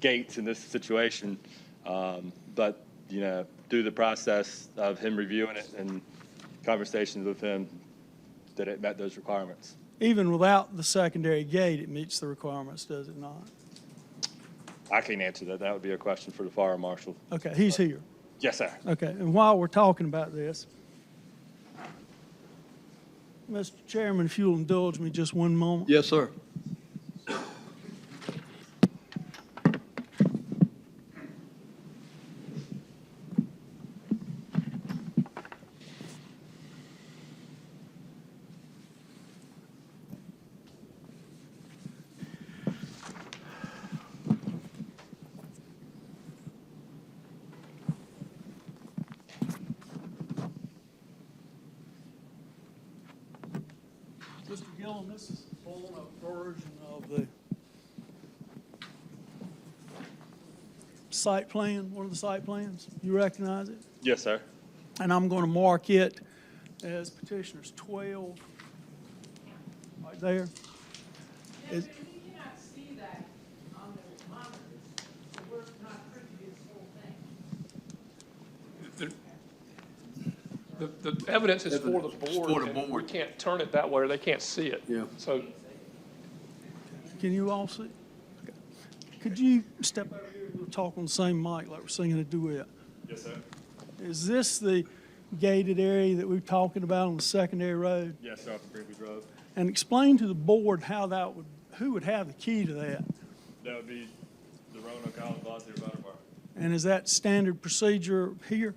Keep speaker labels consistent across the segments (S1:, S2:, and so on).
S1: gates in this situation. Um, But, you know, through the process of him reviewing it and conversations with him, that it met those requirements.
S2: Even without the secondary gate, it meets the requirements, does it not?
S1: I can't answer that. That would be a question for the fire marshal.
S2: Okay, he's here.
S1: Yes, sir.
S2: Okay, and while we're talking about this, Mr. Chairman, if you'll indulge me just one moment.
S3: Yes, sir.
S2: Mr. Gillum, this is a blown-up version of the site plan, one of the site plans. You recognize it?
S1: Yes, sir.
S2: And I'm going to mark it as petitioners 12, right there. Is-
S4: Yes, but we cannot see that on the monitors, so we're not privy to this whole thing.
S5: The- The, the evidence is for the
S3: It's for
S5: board.
S3: the
S5: and We
S3: board.
S5: can't turn it that way, or they can't see it.
S3: Yeah.
S5: So
S2: Can you all see? Okay. Could you step over here and we'll talk on the same mic like we're singing a duet?
S1: Yes, sir.
S2: Is this the gated area that we were talking about on the secondary road?
S1: Yes, sir, off of Greenwood Road.
S2: And explain to the board how that would, who would have the key to that?
S1: That would be the Roanoke Island Volunteer Fire Department.
S2: And is that standard procedure here?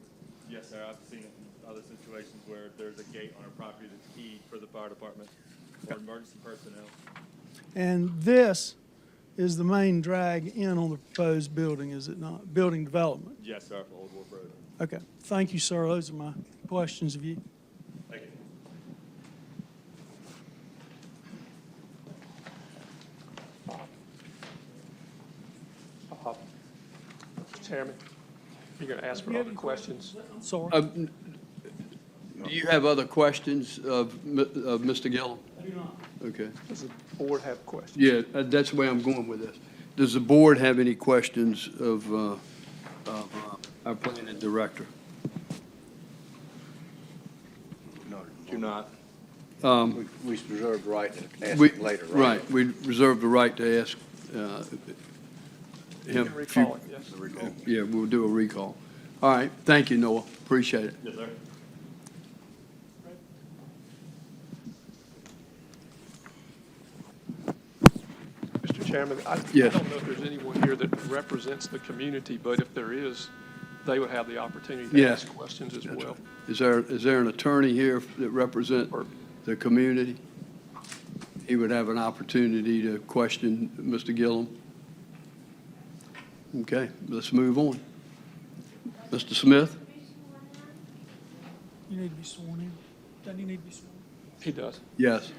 S1: Yes, sir. I've seen it in other situations where there's a gate on a property that's key for the fire department or emergency personnel.
S2: And this is the main drag in on the proposed building, is it not? Building development.
S1: Yes, sir, for Old Wolf Road.
S2: Okay, thank you, sir. Those are my questions of you.
S1: Thank you.
S5: uh-huh. Chairman, you're going to ask for other questions.
S2: I'm sorry.
S3: Um, Do you have other questions of, M- of Mr. Gillum? Okay.
S5: Does the board have questions?
S3: Yeah, uh, that's the way I'm going with this. Does the board have any questions of, uh, of uh, our planning director?
S6: Do not.
S3: Um,
S6: We we reserve the right to ask
S3: we-
S6: it later, right?
S3: Right, we reserve the right to ask uh,
S5: You can
S3: him. if
S5: recall it, yes.
S3: Yeah, we'll do a recall. All right, thank you, Noah, appreciate it.
S1: Yes, sir.
S5: Mr. Chairman, I I don't know
S3: Yes.
S5: if there's anyone here that represents the community, but if there is, they would have the opportunity to
S3: Yeah.
S5: ask questions as well.
S3: Is there, is there an attorney here that represent the community? He would have an opportunity to question Mr. Gillum. Okay, let's move on. Mr. Smith?
S2: You need to be sworn in. Don't you need to be sworn in?
S5: He does.
S3: Yes.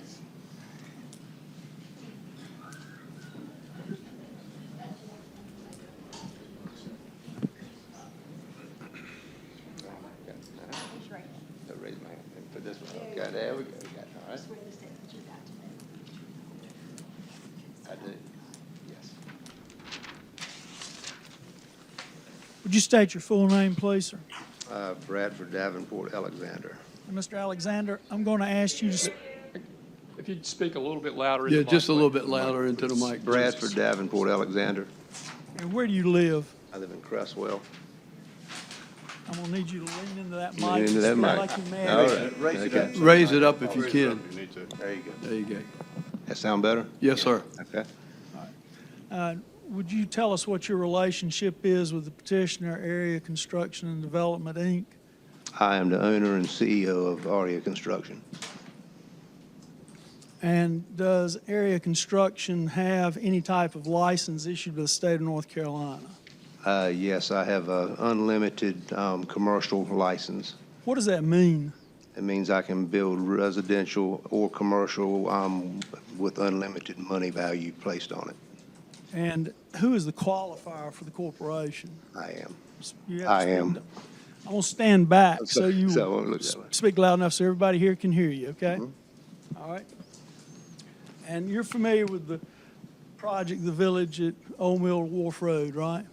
S6: I raised my hand for this one. Okay, there we go. We got it. All right. I did, yes.
S2: Would you state your full name, please, sir?
S6: Uh, Bradford Davenport Alexander.
S2: And Mr. Alexander, I'm going to ask you to, s-
S5: If you'd speak a little bit louder. in the
S3: Yeah, just a
S5: mic,
S3: little
S5: please.
S3: bit louder into the mic.
S6: Bradford Davenport Alexander.
S2: and where do you live?
S6: I live in Cresswell.
S2: I'm going to need you to lean into that mic.
S6: Lean into that
S2: It's
S6: mic.
S2: Like you're mad.
S6: All right. Okay.
S3: Raise it up if you can.
S6: There you go.
S3: There you go.
S6: That sound better?
S3: Yes, sir.
S6: Okay.
S2: Uh, Would you tell us what your relationship is with the petitioner, Area Construction and Development, Inc.?
S6: I am the owner and CEO of Aria Construction.
S2: And does Area Construction have any type of license issued by the state of North Carolina?
S6: Uh, Yes, I have an unlimited um, commercial license.
S2: What does that mean?
S6: It means I can build residential or commercial um, with unlimited money value placed on it.
S2: And who is the qualifier for the corporation?
S6: I am.
S2: You have to
S6: I
S2: stand
S6: am.
S2: up. I'm going to stand back so
S6: Okay,
S2: you
S6: so I won't look that way. Mm-hmm.
S2: speak loud enough so everybody here can hear you, okay? All right. And you're familiar with the project, the village at Old Mill Wharf Road, right?